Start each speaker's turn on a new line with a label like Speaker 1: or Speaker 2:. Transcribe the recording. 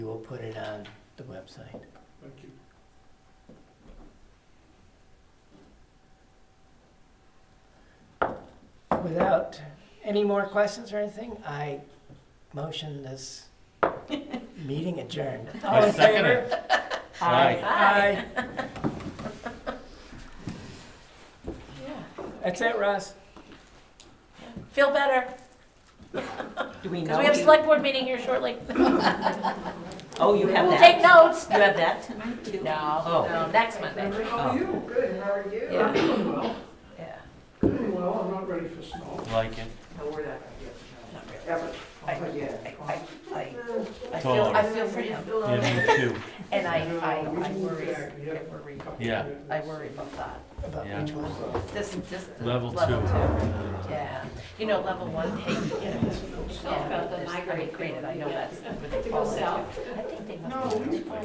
Speaker 1: We will put it on the website.
Speaker 2: Thank you.
Speaker 1: Without any more questions or anything, I motion this meeting adjourned. All
Speaker 3: I
Speaker 1: in
Speaker 3: second
Speaker 1: favor?
Speaker 3: it.
Speaker 1: Aye.
Speaker 3: Aye.
Speaker 1: Aye.
Speaker 4: Yeah.
Speaker 1: That's it, Russ.
Speaker 4: Feel better,
Speaker 5: Do we know?
Speaker 4: because we have select board meeting here shortly.
Speaker 5: Oh, you have
Speaker 4: We'll
Speaker 5: that?
Speaker 4: take notes.
Speaker 5: You have that tonight too?
Speaker 4: No,
Speaker 5: Oh.
Speaker 4: no, next Monday.
Speaker 2: How are you? Good, how are you?
Speaker 4: Oh. Yeah.
Speaker 2: Well,
Speaker 4: Yeah.
Speaker 2: doing well, I'm not ready for snow.
Speaker 3: Like it.
Speaker 6: No, we're not
Speaker 4: Not really.
Speaker 6: gonna
Speaker 4: I-
Speaker 6: get, ever,
Speaker 4: I,
Speaker 6: again.
Speaker 4: I, I, I feel,
Speaker 3: Taller.
Speaker 4: I feel for him,
Speaker 3: Yeah, me too.
Speaker 4: and I,
Speaker 2: No,
Speaker 4: I,
Speaker 2: we
Speaker 4: I
Speaker 2: moved
Speaker 4: worry,
Speaker 2: back, yeah.
Speaker 4: I worry,
Speaker 3: Yeah.
Speaker 4: I worry about that.
Speaker 1: About
Speaker 3: Yeah.
Speaker 1: which one?
Speaker 4: This, this. the
Speaker 3: Level
Speaker 4: Level two,
Speaker 3: two.
Speaker 4: yeah. You know, level one, hey, you know, it's- yeah, there's- I mean, granted, I know that's what they call it. I think they must.
Speaker 2: No, we-